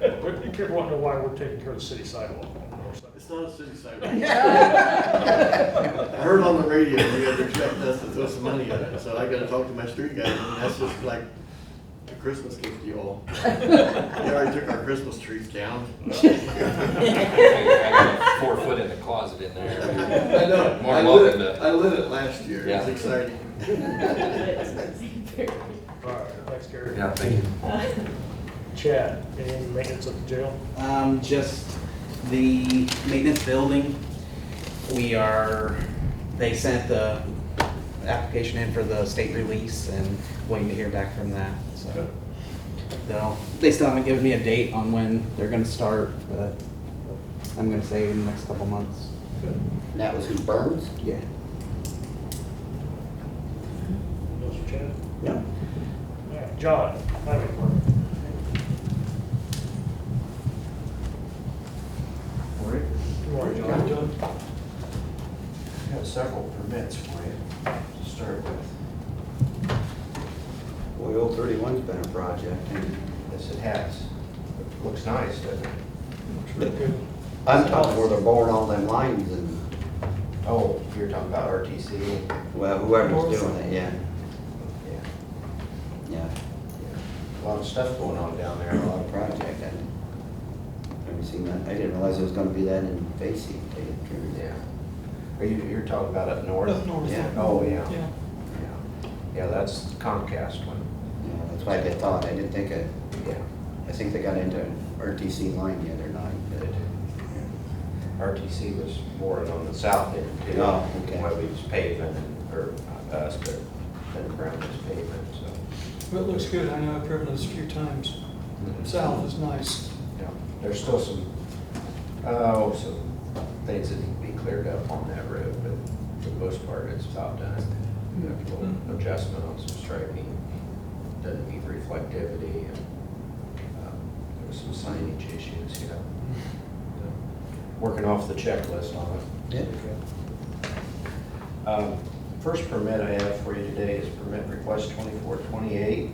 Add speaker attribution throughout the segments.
Speaker 1: You kept wanting to know why we're taking care of the city sidewalk.
Speaker 2: It's not a city sidewalk. I heard on the radio, we had to expect us to throw some money on it, so I gotta talk to my street guy, and that's just like a Christmas gift to you all. They already took our Christmas trees down.
Speaker 3: I got Four foot in the closet in there.
Speaker 2: I know,
Speaker 3: More
Speaker 2: I lit
Speaker 3: welcome
Speaker 2: it,
Speaker 3: to-
Speaker 2: I lit it last year, it was
Speaker 3: Yeah.
Speaker 2: exciting.
Speaker 1: All right, thanks, Gary.
Speaker 3: Yeah, thank you.
Speaker 1: Chad, any maintenance of the jail?
Speaker 4: Um, just the maintenance building, we are, they sent the application in for the state release and waiting to hear back from that, so. They'll, they still haven't given me a date on when they're gonna start, but I'm gonna say in the next couple months,
Speaker 5: That was who Burns?
Speaker 4: yeah.
Speaker 1: Those are Chad.
Speaker 4: Yeah.
Speaker 1: All right, John, highway department.
Speaker 6: All right,
Speaker 1: Good morning, John.
Speaker 6: I have several permits for you to start with. Boy, Old 31's been a project, and yes, it has. It Looks nice, doesn't it?
Speaker 1: Good.
Speaker 5: I'm talking where they're boring all them lines and,
Speaker 6: Oh, you're talking about RTC?
Speaker 5: well, whoever's doing it, yeah,
Speaker 6: Yeah,
Speaker 5: yeah.
Speaker 6: yeah. A lot of stuff going on down there,
Speaker 5: A
Speaker 6: a
Speaker 5: lot
Speaker 6: lot
Speaker 5: of project, I, never seen that, I didn't realize it was gonna be that in Basie, taking
Speaker 6: of,
Speaker 5: triggers.
Speaker 6: yeah. Are you, you're talking about up north?
Speaker 7: Up north,
Speaker 6: Yeah,
Speaker 5: yeah.
Speaker 6: oh, yeah. Yeah, Yeah, that's Comcast one,
Speaker 5: Yeah, that's why they thought, I didn't think it,
Speaker 6: yeah.
Speaker 5: I think they got into RTC line the other night,
Speaker 6: They
Speaker 5: but.
Speaker 6: did. RTC was boring on the south end too.
Speaker 5: Oh, okay.
Speaker 6: Where we was paving, and- or not us, but then Brown was paving, so.
Speaker 7: But it looks good, I know I've driven this a few times. South is nice.
Speaker 6: Yeah, There's still some, oh, some things that need to be cleared up on that road, but for the most part, it's about done. You have a little adjustment on some striping, doesn't need reflectivity, and um, there was some signage issues, you know. So, Working off the checklist on it.
Speaker 5: Yeah.
Speaker 6: Um, First permit I have for you today is permit request 2428.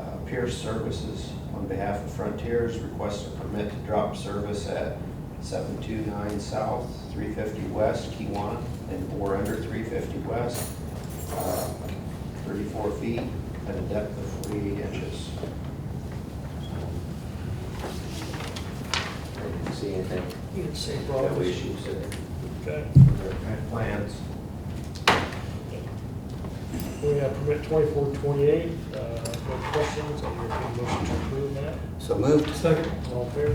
Speaker 6: Uh, Pierce Services, on behalf of Frontiers, requests a permit to drop service at 729 South, 350 West, Kiwanis, and bore under 350 West, uh, 34 feet at a depth of 48 inches. I didn't see anything,
Speaker 1: You didn't say
Speaker 6: no
Speaker 1: problems.
Speaker 6: issues in
Speaker 1: Okay.
Speaker 6: their plans.
Speaker 1: We have permit twenty-four twenty-eight. Uh, no questions, I'll entertain a motion to approve that.
Speaker 5: So moved.
Speaker 7: Second.
Speaker 1: All in favor?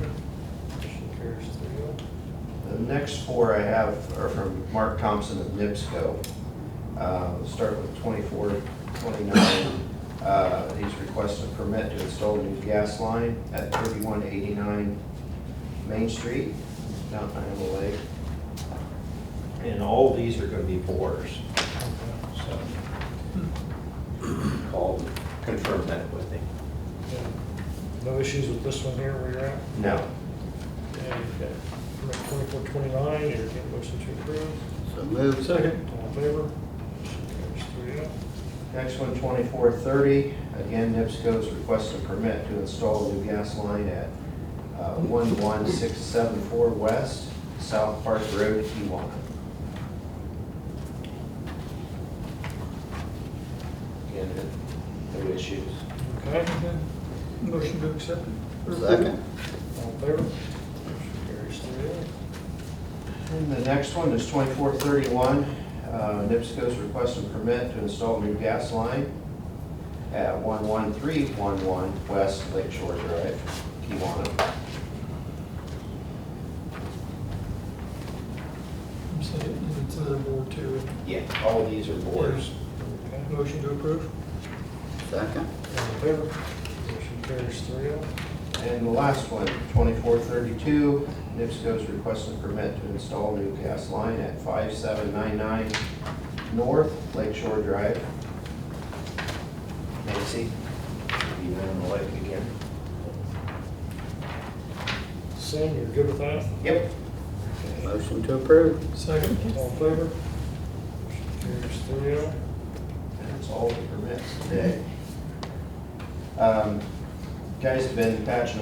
Speaker 1: Motion carries three oh.
Speaker 6: The next four I have are from Mark Thompson of NIPSCO. Uh, we'll Start with 24, 29. Uh, He's requested a permit to install a new gas line at 3189 Main Street, Mount Iowa Lake. And all these are going to be borers, so. Called, confirmed that with him.
Speaker 1: Okay. No issues with this one here where you're at?
Speaker 6: No.
Speaker 1: And we've got permit twenty-four twenty-nine, entertain a motion to approve.
Speaker 5: So moved.
Speaker 1: All in favor? Motion carries three oh.
Speaker 6: Next one, 2430, again, NIPSCO's requested a permit to install a new gas line at uh, 11674 West, South Park Road, Kiwanis. Again, no issues.
Speaker 1: Okay,
Speaker 7: Okay. Motion to accept it. or approve it.
Speaker 5: Second.
Speaker 1: all in favor? Motion carries three oh.
Speaker 6: And the next one is 2431, uh, NIPSCO's requesting permit to install a new gas line at 11311 West Lake Shore Drive, Kiwanis.
Speaker 7: I'm saying it's another board too.
Speaker 6: Yeah, all these are boards.
Speaker 1: oh. Okay.
Speaker 7: Motion to approve?
Speaker 5: Second.
Speaker 1: All in favor? Motion carries three oh.
Speaker 6: And the last one, 2432, NIPSCO's requesting permit to install new gas line at 5799 North Lakeshore Drive. Nancy, you went on the lake again?
Speaker 1: Sam, you're good with that?
Speaker 6: Yep.
Speaker 5: Motion to approve.
Speaker 7: Second.
Speaker 1: All in favor? Motion carries three oh.
Speaker 6: That's all the permits today. Um, Guys have been patching